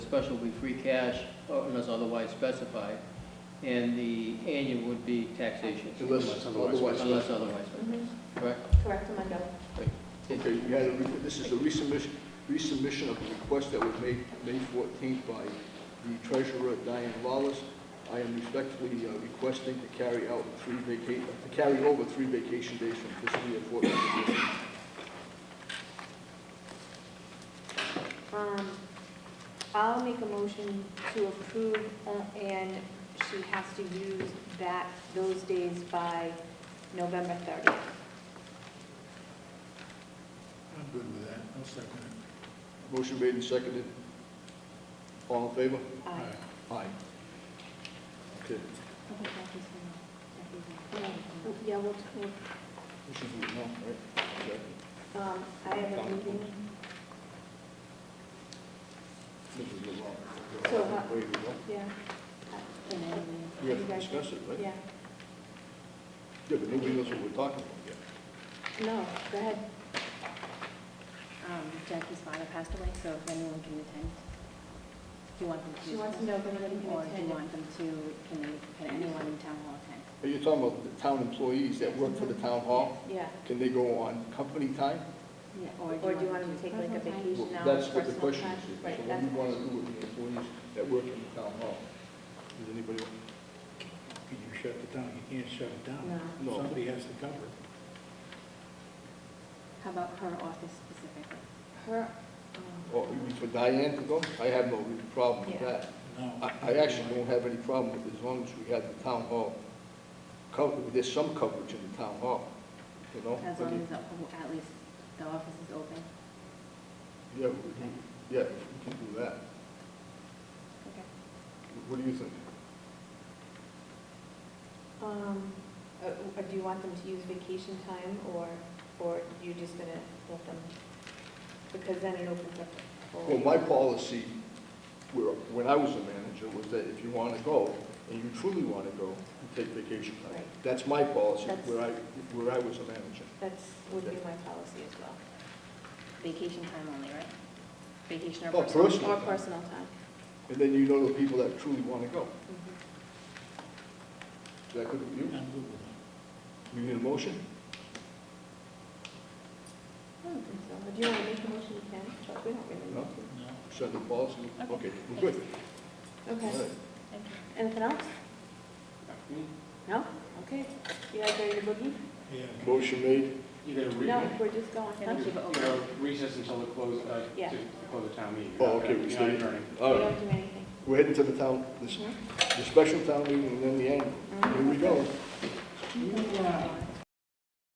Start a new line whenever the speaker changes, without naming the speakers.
special would be free cash or unless otherwise specified, and the annual would be taxation,
Unless otherwise.
unless otherwise,
Mhm.
correct?
Correct, Armando.
Okay, you had, a re- this is a resubmission, resubmission of the request that was made May 14th by the treasurer Diane Lawless. I am respectfully uh, requesting to carry out three vaca, uh, to carry over three vacation days from fiscal year 14.
Um, I'll make a motion to approve, uh, and she has to use that, those days by November 30th.
I'm good with that. I'll second it.
Motion made and seconded. All in favor?
Aye.
Aye. Okay,
Yeah, we'll, we'll
we should do it now, right? Okay.
Um, I have a meeting,
This is the law.
So, uh,
There you go.
yeah.
We have to discuss it, right?
Yeah,
Yeah, but nobody knows what we're talking about yet.
no, go ahead.
Um, Jackie's father passed away, so if anyone can attend, do you want them to?
She wants to know if anybody can
Or do
attend.
you want them to, can, can anyone in town hall attend?
Are you talking about the town employees that work for the town hall?
Yeah,
Can they go on company time?
or do you want them to take like a
Well,
vacation hour?
That's what the
personal
question
time?
is. So
Right,
what
that's
we
the
want to
question.
do with the employees that work in the town hall? Does anybody? want-
Can you shut it down? You can't shut it down.
No.
Somebody has to cover it.
How about her office specifically?
Her, um,
Oh, you mean for Diane to go? I have no real problem with
Yeah.
that.
No.
I, I actually don't have any problem with it as long as we have the town hall covered. There's some coverage in the town hall, you know?
As long as, the- at least the office is open?
Yeah, we can, yeah, we can do that.
Okay.
What do you think?
um, uh, uh, do you want them to use vacation time, or, or you just gonna let them? Because then it opens up. for-
Well, my policy, where- when I was a manager, was that if you want to go, and you truly want to go, you take vacation time.
Right.
That's my policy,
That's-
where I, where I was a manager.
That's, would be my policy as well.
Vacation time only, right? Vacation or
Oh,
personal?
personal
Or
time.
personal time.
And then you know the people that truly want to go.
Mhm.
Is that good with
I'm
you?
good with that.
You need a motion?
I don't think so. Do you want to make a motion, you can, but we don't really.
No?
No.
Send the policy?
Okay.
Okay, we're good. All
Okay.
right.
Thank you.
Anything else?
Hmm?
No? Okay. You guys ready to boogie?
Yeah.
Motion made.
You're gonna re,
No, we're just going.
Can
huh?
we
you're
keep it
gonna recess until the close, uh,
Yeah.
to to close the town meeting.
Oh, okay,
You're
we
not
stay.
adjourning.
All
We
right,
don't do anything.
we're heading to the town, this- the special town meeting and then the annual. Here we go.